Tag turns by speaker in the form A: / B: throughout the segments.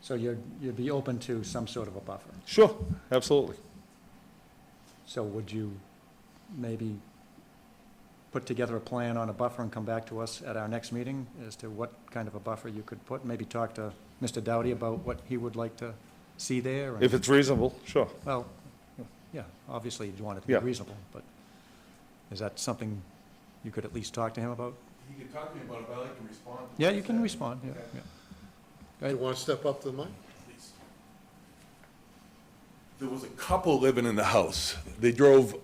A: So you'd, you'd be open to some sort of a buffer.
B: Sure, absolutely.
A: So would you maybe put together a plan on a buffer and come back to us at our next meeting as to what kind of a buffer you could put? Maybe talk to Mr. Dowdy about what he would like to see there? and-
B: If it's reasonable, sure.
A: Well, yeah, obviously you'd want it to be
B: Yeah.
A: reasonable, but is that something you could at least talk to him about?
C: He could talk to me about it, but I like to respond.
A: Yeah, you can respond, yeah,
C: Okay.
A: yeah.
D: You want to step up to the mic?
C: Please. There was a couple living in the house. They drove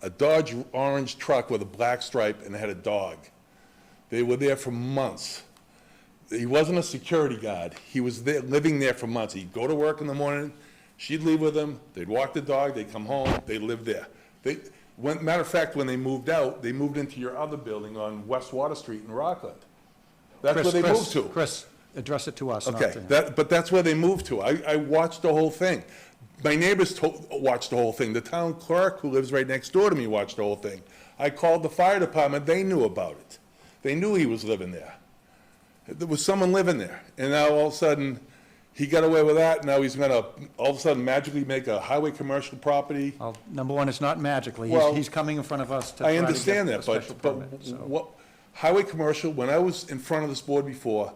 C: a Dodge orange truck with a black stripe and had a dog. They were there for months. He wasn't a security guard. He was there, living there for months. He'd go to work in the morning, she'd leave with him, they'd walk the dog, they'd come home, they lived there. They, when, matter of fact, when they moved out, they moved into your other building on West Water Street in Rockland. That's where
A: Chris,
C: they
A: Chris,
C: moved to.
A: Chris, address it to us, not to
C: Okay,
A: him.
C: that, but that's where they moved to. I, I watched the whole thing. My neighbors to, watched the whole thing. The town clerk, who lives right next door to me, watched the whole thing. I called the fire department, they knew about it. They knew he was living there. There was someone living there, and now all of a sudden, he got away with that, now he's gonna, all of a sudden magically make a highway commercial property.
A: Well, number one, it's not magically. He's,
C: Well,
A: he's coming in front of us to try
C: I
A: to get
C: understand
A: a
C: that, but,
A: special
C: but
A: permit, so.
C: what, highway commercial, when I was in front of this board before,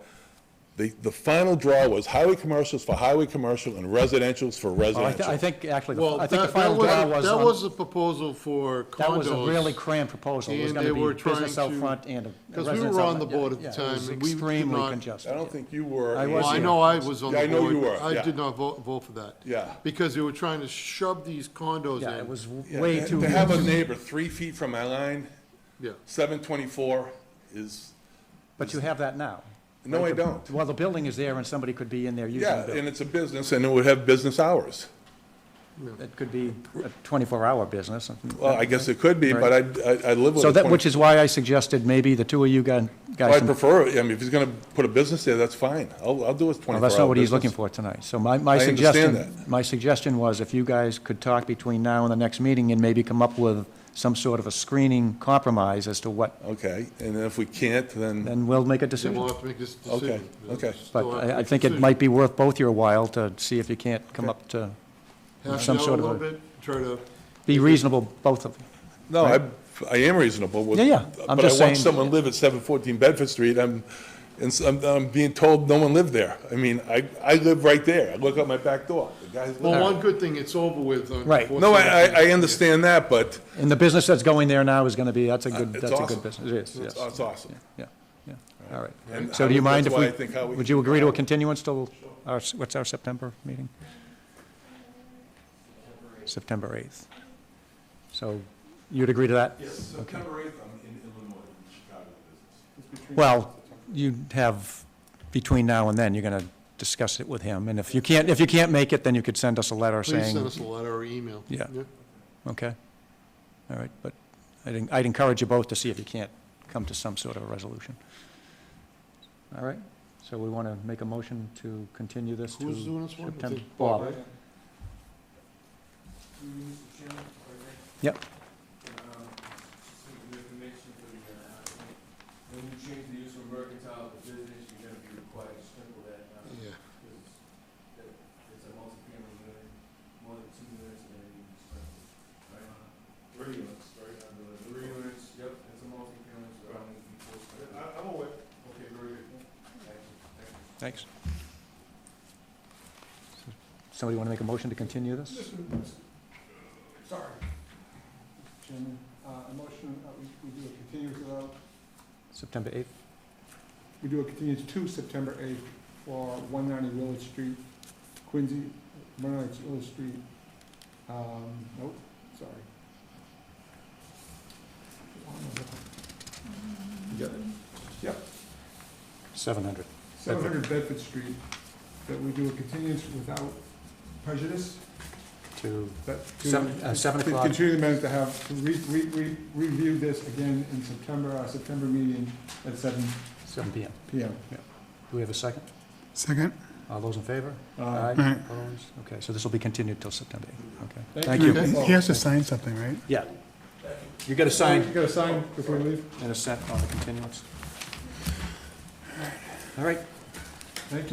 C: the, the final draw was highway commercials for highway commercial and residential's for
A: Well, Oh, I thi- I
C: residential.
A: think, actually, the-
D: Well,
A: I think the
D: that,
A: final
D: that was,
A: draw
D: that was
A: was, on-
D: the proposal for condos.
A: that was a really cramped proposal. It was
D: and they
A: gonna
D: were
A: be business
D: trying
A: out
D: to-
A: front and a- a
D: because we
A: residence
D: were on
A: out
D: the
A: front.
D: board at
A: Yeah,
D: the
A: yeah,
D: time,
A: It
D: and
A: was
D: we did
A: extremely
D: not-
A: congested.
C: I don't think you were.
A: I
D: Well, I
A: here.
D: know I was on the
C: Yeah, I
D: board.
C: know you were,
D: I
C: yeah.
D: did not vote, vote for that.
C: Yeah.
D: Because they were trying to shove these condos in.
A: Yeah, it was w-
C: Yeah,
A: way
C: to-
A: too.
C: To have a neighbor three feet from my line,
D: Yeah.
C: seven twenty-four is,
A: But you have that now.
C: no, I don't.
A: Well, the building is there and somebody could be in there using the
C: Yeah, and
A: building.
C: it's a business and it would have business hours.
A: It could be a twenty-four hour business.
C: Well, I guess it could be, but I, I, I live with.
A: So
C: a
A: that,
C: 20
A: which is why I suggested maybe the two of you guys.
C: Well,
A: guys.
C: I
A: can-
C: prefer, it. I mean, if he's gonna put a business there, that's fine. I'll, I'll do his twenty-four
A: Well,
C: hour
A: that's not what he's
C: business.
A: looking for tonight. So my, my
C: I understand
A: suggestion, my suggestion was if you guys could talk between now and the next meeting and maybe come up with some sort of a screening compromise as to what,
C: Okay, and then if we can't, then,
A: then we'll make a
D: They will
A: decision.
D: have to make this
C: Okay,
D: decision. They'll
C: okay.
A: But
D: still have
A: I,
D: to
A: I
D: make a
A: think it
D: decision.
A: might be worth both your while to see if you can't come up to
D: Hash
A: some
D: it out
A: sort of
D: a
A: a-
D: little bit, try to,
A: be reasonable, both of you.
C: no, I, I am reasonable with.
A: Yeah, yeah, I'm just
C: But I
A: saying-
C: watched someone live at seven fourteen Bedford Street, I'm, and s- I'm, I'm being told no one lived there. I mean, I, I live right there, I look out my back door, the guy's
D: well,
C: living.
D: one good thing, it's over with.
A: Right.
C: No, I, I, I understand that, but
A: And the business that's going there now is gonna be, that's a good,
C: it's
A: that's a
C: awesome.
A: good business. It is, yes.
C: it's, it's awesome.
A: Yeah, yeah, all right.
C: And
A: So
C: I
A: do you
C: would-
A: mind
C: that's
A: if
C: why I think how
A: we,
C: we
A: would
C: can
A: you agree to a
C: follow.
A: continuance till our, s- what's our September meeting? September 8th. So you'd agree to that?
C: Yes, September eighth, I'm in Illinois, in Chicago business.
A: Well, you'd have, between now and then, you're going to discuss it with him, and if you can't, if you can't make it, then you could send us a letter
D: Please send
A: saying,
D: us a letter or email.
A: Yeah. okay? All right, but I'd en- I'd encourage you both to see if you can't come to some sort of a resolution. All right, so we want to make a motion to continue this to...
D: Who's doing this one? I
A: September-
D: think
A: Bob.
D: Bob, right?
A: Yep.
E: um, information for the, uh, when you change the use from mercantile to business, you're gonna be required to sprinkle that, uh,
D: Yeah.
E: because that- it's a multi-family unit, more than two units, and then you can sprinkle. Right? Three units, right, under the. Three units, yep, it's a multi-family, so I need to be full sprinkle.
C: I'm aware.
E: Okay, very good. Thank you, thank
A: Thanks.
E: you.
A: Somebody want to make a motion to continue this?
F: Sorry. Chairman, uh, a motion, uh, we we do a continuance without,
A: September 8th?
F: we do a continuance to September 8th for 190 Willard Street, Quincy, 190 Willard Street. Um, Nope, sorry. You got it.
A: 700.
F: 700 Bedford Street, that we do a continuance without prejudice,
A: To
F: that. to-
A: Seven- uh, seven
F: to
A: o'clock.
F: Continue the minute to have, to re, re, re- review this again in September, our September meeting at 7
A: 7 PM.
F: PM.
A: Do we have a second?
F: Second.
A: All those in favor?
F: Uh,
A: Opposed? Okay, so this will be continued till September 8th, okay.
F: Thank
A: Thank
F: you.
A: you.
F: He has to
G: sign something, right?
A: Yeah. You got a
F: You
A: sign
F: got a sign before you leave?
A: and a set on the continuance. All right,